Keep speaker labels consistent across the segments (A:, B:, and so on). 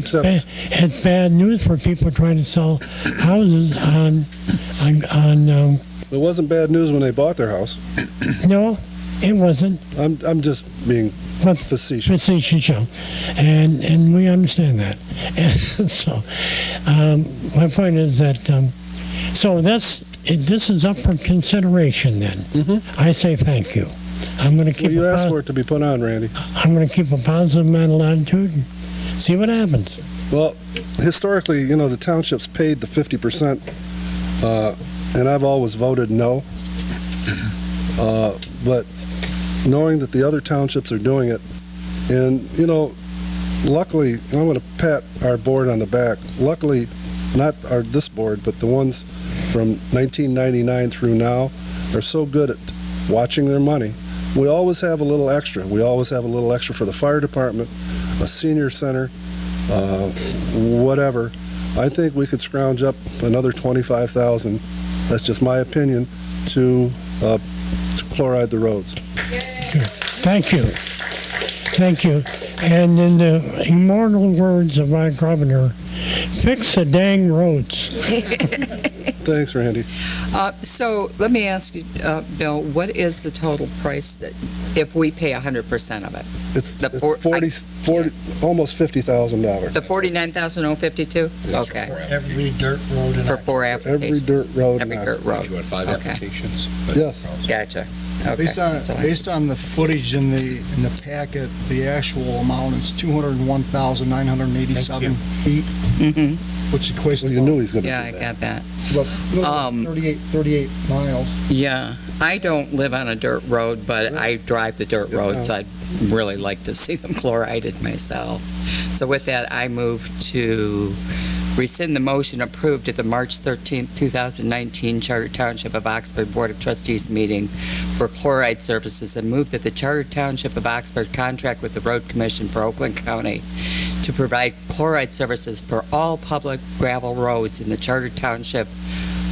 A: Except,
B: Ba- It's bad news for people trying to sell houses on, on, on, um,
A: it wasn't bad news when they bought their house.
B: no, it wasn't,
A: I'm, I'm just being
B: but
A: facetious.
B: facetious, yeah. and, and we understand that. And so, um, my point is that, um, so this, this is up for consideration then. I say thank you. I'm gonna keep.
A: Mm-hmm. Well, you
B: a
A: asked
B: pos-
A: for it to be put on, Randy.
B: I'm going to keep a positive mental attitude and see what happens.
A: Well, historically, you know, the townships paid the 50%, uh, and I've always voted no. Uh, But knowing that the other townships are doing it, and, you know, luckily, I'm going to pat our board on the back. Luckily, not our, this board, but the ones from 1999 through now are so good at watching their money. We always have a little extra. We always have a little extra for the fire department, a senior center, uh, whatever. I think we could scrounge up another 25,000, that's just my opinion, to uh, to chloride the roads.
B: Thank you. Thank you. And in the immortal words of my governor, fix the dang roads.
A: Thanks, Randy.
C: Uh, So let me ask you, uh, Bill, what is the total price that, if we pay 100% of it?
A: It's
C: The
A: it's
C: por-
A: 40, 40, almost $50,000.
C: The 49,052?
D: For
C: Okay,
D: every dirt road in
C: for
D: Iowa.
C: four
A: Every
C: applications?
A: dirt road
C: Every
A: now.
C: dirt
E: If you
C: road,
E: want five
C: Okay.
E: applications.
A: Yes.
C: gotcha. Okay.
D: Based on,
C: That's all I-
D: based on the footage in the, in the packet, the actual amount is 201,987 feet,
C: Mhm.
D: which equates
A: Well, you knew
D: to
A: he was going
C: Yeah, I
A: to do that.
C: got that.
D: about about
C: Um,
D: 38, 38 miles.
C: Yeah, I don't live on a dirt road, but I drive the dirt
A: Yeah.
C: roads. I'd really like to see them chlorided myself. So with that, I move to rescind the motion approved at the March 13th, 2019 Charter Township of Oxford Board of Trustees meeting for chloride services and move that the Charter Township of Oxford contract with the Road Commission for Oakland County to provide chloride services for all public gravel roads in the Charter Township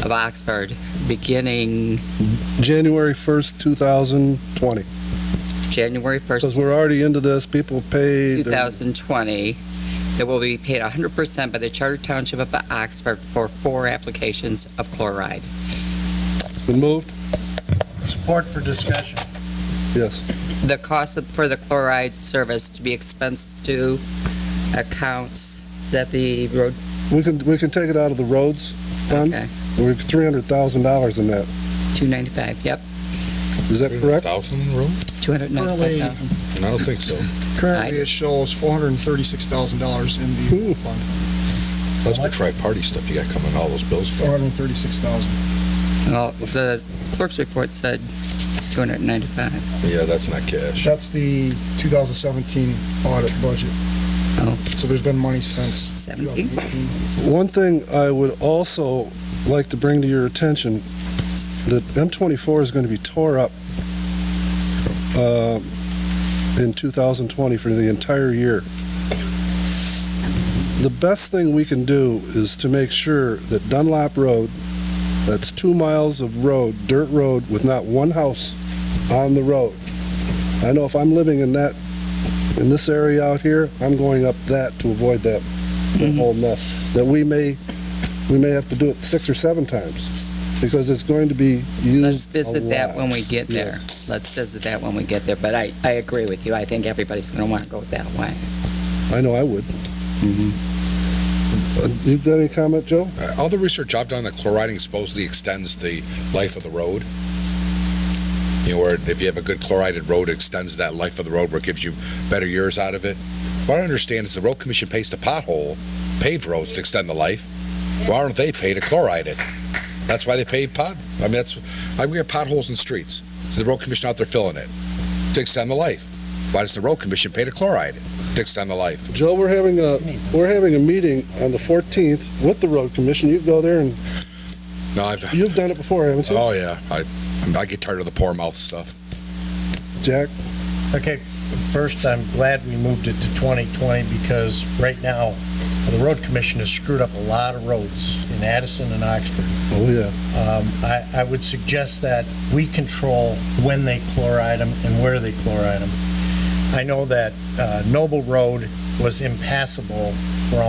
C: of Oxford, beginning
A: January 1st, 2020,
C: January
A: because
C: 1st,
A: we're already into this, people paid. their-
C: 2020, that will be paid 100% by the Charter Township of Oxford for four applications of chloride.
A: Been moved?
D: Support for discussion.
A: Yes.
C: The cost of- for the chloride service to be expensed to accounts, is that the road?
A: We can, we can take it out of the roads fund.
C: Okay,
A: We're $300,000 in that.
C: 295, yep,
A: Is that correct?
E: Thousand room?
C: 295,000.
E: And I don't think so.
D: Currently, it shows $436,000 in the fund,
E: That's for tri-party stuff you got coming, all those bills.
D: 436,000.
C: Well, the clerk's report said 295.
E: Yeah, that's not cash.
D: That's the 2017 audit budget.
C: Oh.
D: So there's been money since.
C: 17?
D: 2018.
A: One thing I would also like to bring to your attention, that M24 is going to be tore up uh, in 2020 for the entire year. The best thing we can do is to make sure that Dunlap Road, that's two miles of road, dirt road, with not one house on the road. I know if I'm living in that, in this area out here, I'm going up that to avoid that that
C: Mm-hmm.
A: whole mess, that we may, we may have to do it six or seven times, because it's going to be used
C: Let's
A: a
C: visit that
A: lot.
C: when we get there. Let's visit that when we get there, but I, I agree with you. I think everybody's going to want to go that way.
A: I know I would.
C: Mhm.
A: Uh, You got any comment, Joe?
E: Uh, All the research I've done, the chloriding supposedly extends the life of the road. You know, or if you have a good chlorided road, it extends that life of the road where it gives you better years out of it. What I understand is the road commission pays the pothole, paved roads to extend the life. Why aren't they paid to chloride it? That's why they pay pot, I mean, that's, I we got potholes in streets. So the road commission out there filling it to extend the life. Why does the road commission pay to chloride it to extend the life?
A: Joe, we're having a, we're having a meeting on the 14th with the road commission. You go there and,
E: No, I've,
A: you've done it before, haven't you,
E: oh yeah, I, I get tired of the poor mouth stuff.
A: Jack?
F: Okay, first, I'm glad we moved it to 2020 because right now, the road commission has screwed up a lot of roads in Addison and Oxford.
A: Oh, yeah.
F: Um, I, I would suggest that we control when they chloride them and where they chloride them. I know that uh, Noble Road was impassable for almost